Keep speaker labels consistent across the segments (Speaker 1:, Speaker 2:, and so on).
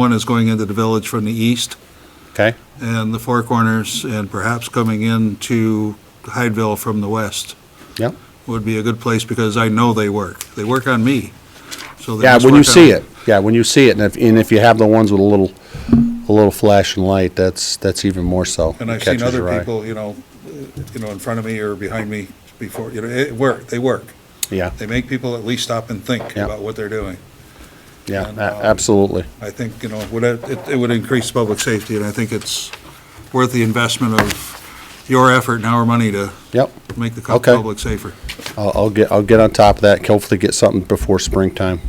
Speaker 1: One is going into the village from the east
Speaker 2: Okay,
Speaker 1: and the Four Corners and perhaps coming into Hydeville from the west
Speaker 2: yep.
Speaker 1: would be a good place because I know they work. They work on me. So they
Speaker 2: Yeah,
Speaker 1: must
Speaker 2: when you
Speaker 1: work on-
Speaker 2: see it, yeah, when you see it, and if, and if you have the ones with a little, a little flash and light, that's, that's even more so.
Speaker 1: And
Speaker 2: It
Speaker 1: I've seen
Speaker 2: catches your
Speaker 1: other
Speaker 2: eye.
Speaker 1: people, you know, uh, you know, in front of me or behind me before, you know, it work, they work.
Speaker 2: Yeah,
Speaker 1: They make people at least stop and think
Speaker 2: Yeah.
Speaker 1: about what they're doing.
Speaker 2: yeah,
Speaker 1: and,
Speaker 2: a-
Speaker 1: um,
Speaker 2: absolutely.
Speaker 1: I think, you know, would it, it- it would increase public safety, and I think it's worth the investment of your effort and our money to
Speaker 2: Yep,
Speaker 1: make the
Speaker 2: Okay.
Speaker 1: public safer.
Speaker 2: I'll, I'll get, I'll get on top of that, and hopefully get something before springtime.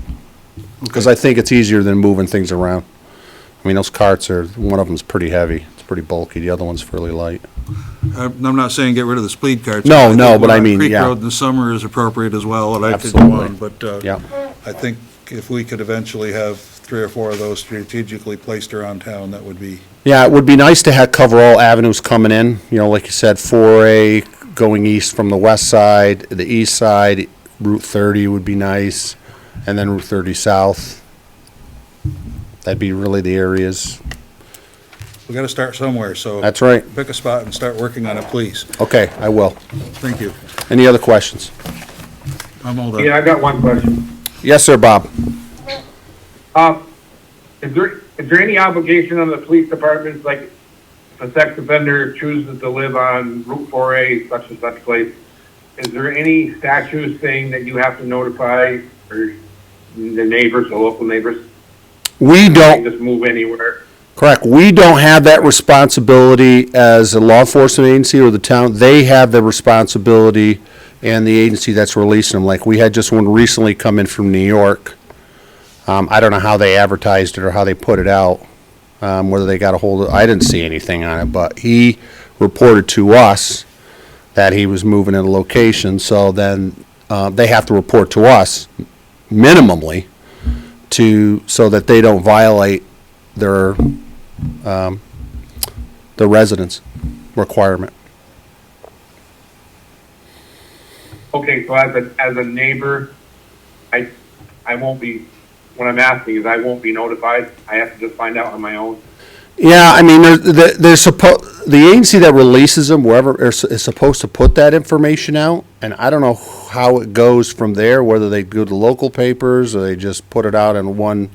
Speaker 2: Because I think it's easier than moving things around. I mean, those carts are, one of them's pretty heavy, it's pretty bulky, the other one's fairly light.
Speaker 1: I'm I'm not saying get rid of the speed carts.
Speaker 2: No,
Speaker 1: think
Speaker 2: no, but I
Speaker 1: Walnut
Speaker 2: mean,
Speaker 1: Creek
Speaker 2: yeah.
Speaker 1: Road in the summer is appropriate as well, and I could go
Speaker 2: Absolutely.
Speaker 1: on, but uh,
Speaker 2: Yeah.
Speaker 1: I think if we could eventually have three or four of those strategically placed around town, that would be,
Speaker 2: Yeah, it would be nice to have, cover all avenues coming in, you know, like you said, four A going east from the west side, the east side, Route thirty would be nice, and then Route thirty south. That'd be really the areas.
Speaker 1: we got to start somewhere, so.
Speaker 2: That's right.
Speaker 1: Pick a spot and start working on it, please.
Speaker 2: Okay, I will.
Speaker 1: Thank you.
Speaker 2: Any other questions?
Speaker 1: I'm all done.
Speaker 3: Yeah, I got one question.
Speaker 2: Yes, sir, Bob.
Speaker 3: Uh, is there, is there any obligation on the police departments, like if a sex offender chooses to live on Route four A, such and such place, is there any statute saying that you have to notify or the neighbors, the local neighbors,
Speaker 2: We
Speaker 3: they
Speaker 2: don't,
Speaker 3: just move anywhere?
Speaker 2: correct, we don't have that responsibility as a law enforcement agency or the town. They have the responsibility and the agency that's releasing them. Like, we had just one recently come in from New York. Um, I don't know how they advertised it or how they put it out, um, whether they got a hold of, I didn't see anything on it, but he reported to us that he was moving at a location, so then, uh, they have to report to us minimally to, so that they don't violate their, um, the residence requirement.
Speaker 3: Okay, so as a, as a neighbor, I, I won't be, what I'm asking is I won't be notified. I have to just find out on my own.
Speaker 2: Yeah, I mean, they're, they're- they're supposed, the agency that releases them, wherever, is is supposed to put that information out, and I don't know how it goes from there, whether they go to local papers, or they just put it out in one,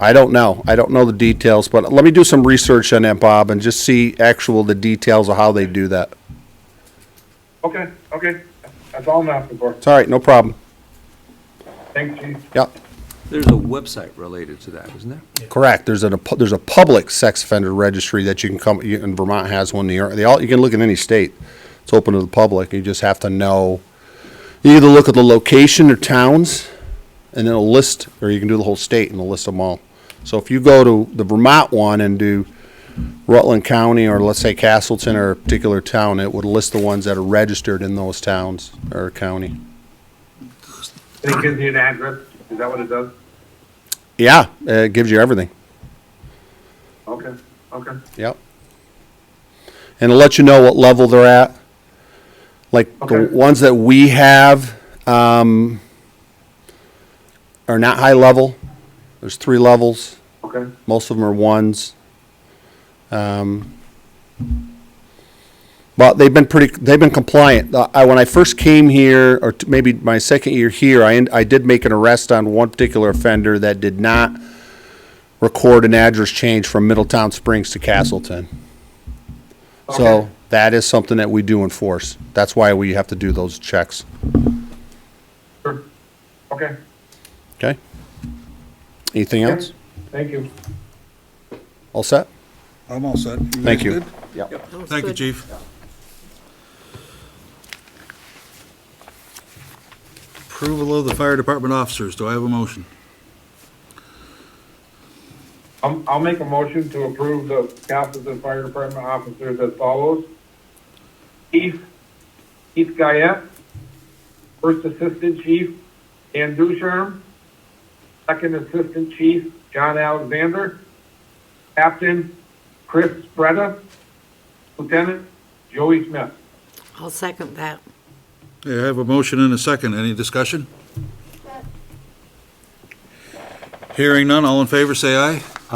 Speaker 2: I don't know, I don't know the details, but let me do some research on that, Bob, and just see actual, the details of how they do that.
Speaker 3: Okay, okay. That's all I'm asking for.
Speaker 2: It's all right, no problem.
Speaker 3: Thanks, chief.
Speaker 2: Yep,
Speaker 4: There's a website related to that, isn't there?
Speaker 2: correct, there's a, there's a public sex offender registry that you can come, you- and Vermont has one, New York, they all, you can look in any state. It's open to the public, you just have to know. You either look at the location or towns, and then a list, or you can do the whole state and it'll list them all. So if you go to the Vermont one and do Rutland County, or let's say Castleton or a particular town, it would list the ones that are registered in those towns or county.
Speaker 3: And it gives you an address, is that what it does?
Speaker 2: Yeah, uh, it gives you everything,
Speaker 3: Okay, okay.
Speaker 2: yep. And it'll let you know what level they're at. Like, the
Speaker 3: Okay.
Speaker 2: ones that we have, um, are not high level. There's three levels.
Speaker 3: Okay,
Speaker 2: Most of them are ones. Um, But they've been pretty, they've been compliant. Uh, I, when I first came here, or t- maybe my second year here, I, en- I did make an arrest on one particular offender that did not record an address change from Middletown Springs to Castleton.
Speaker 3: Okay.
Speaker 2: So that is something that we do enforce. That's why we have to do those checks,
Speaker 3: sure. Okay,
Speaker 2: okay? Anything
Speaker 3: Yeah.
Speaker 2: else?
Speaker 3: thank you.
Speaker 2: All set?
Speaker 1: I'm all set. guys
Speaker 2: Thank you.
Speaker 1: good?
Speaker 2: Yep.
Speaker 1: Thank you, chief. Approval of the fire department officers. Do I have a motion?
Speaker 3: Um, I'll, I'll make a motion to approve the council's and fire department officers as follows. Chief, Keith Guyette, First Assistant Chief Dan Ducharme, Second Assistant Chief John Alexander, Captain Chris Spreda, Lieutenant Joey Smith.
Speaker 5: I'll second that.
Speaker 1: Okay, I have a motion and a second. Any discussion? Hearing none, all in favor, say aye.